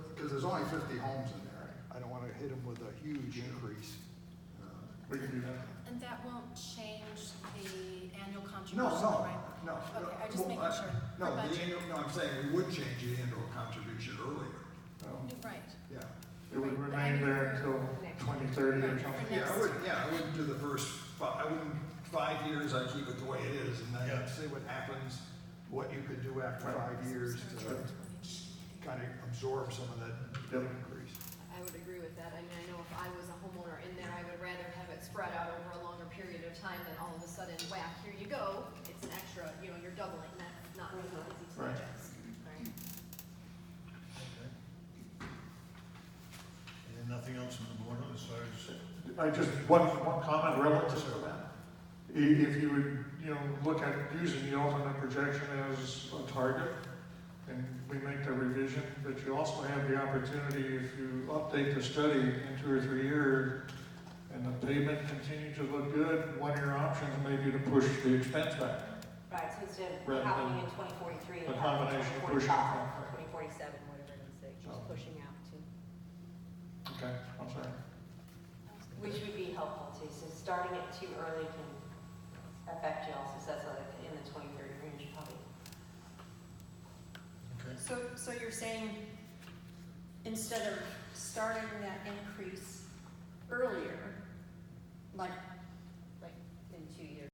there's only fifty homes in there. I don't wanna hit them with a huge increase. We can do that. And that won't change the annual No, contribution, no, right? no. Okay, I just Well, making I- sure. No, For the budget. annual, no, I'm saying we would change the annual contribution earlier, Um, Right. yeah. It would remain there until twenty thirty or something. Next. Yeah, I would, yeah, I wouldn't do the first, fi- I wouldn't, five years, I keep it the way it is, and Yeah. then see what happens, what you could do after five years to kinda absorb some of that Yep. increase. I would agree with that. I mean, I know if I was a homeowner in there, I would rather have it spread out over a longer period of time than all of a sudden, whack, here you go. It's an extra, you know, you're doubling. That's not really Mm-hmm. easy to Right. digest. Right. And nothing else on the board as far as, I just, one, one comment relative to that. I- If you would, you know, look at using the ultimate projection as a target, and we make the revision, but you also have the opportunity, if you update the study in two or three years, and the pavement continue to look good, one of your options may be to push the expense back. Right, so instead Rather of happening than in twenty forty-three, a it combination happens of in twenty pushing forty-five, from- or twenty forty-seven, whatever it is, that you're just Oh. pushing out to, Okay, I'm sorry. which would be helpful too, since starting it too early can affect you also, so that's like in the twenty thirty range probably. okay, So, so you're saying, instead of starting that increase earlier, like